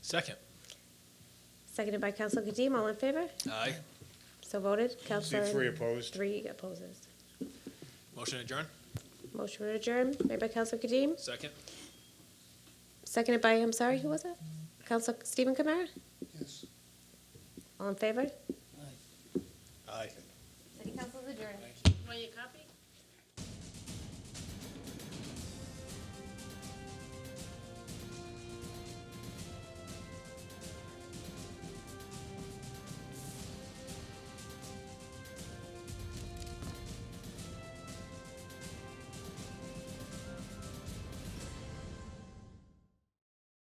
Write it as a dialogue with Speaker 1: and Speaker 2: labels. Speaker 1: Second.
Speaker 2: Seconded by Counselor Kadim, all in favor?
Speaker 1: Aye.
Speaker 2: So voted.
Speaker 3: See
Speaker 2: Counselor.
Speaker 3: three opposed.
Speaker 2: Three opposes.
Speaker 1: Motion adjourned.
Speaker 2: Motion to adjourn, made by Counselor Kadim,
Speaker 1: Second.
Speaker 2: seconded by, I'm sorry, who was it? Counselor Stephen Kamara?
Speaker 3: Yes.
Speaker 2: All in favor?
Speaker 1: Aye.
Speaker 2: City Council's adjourned.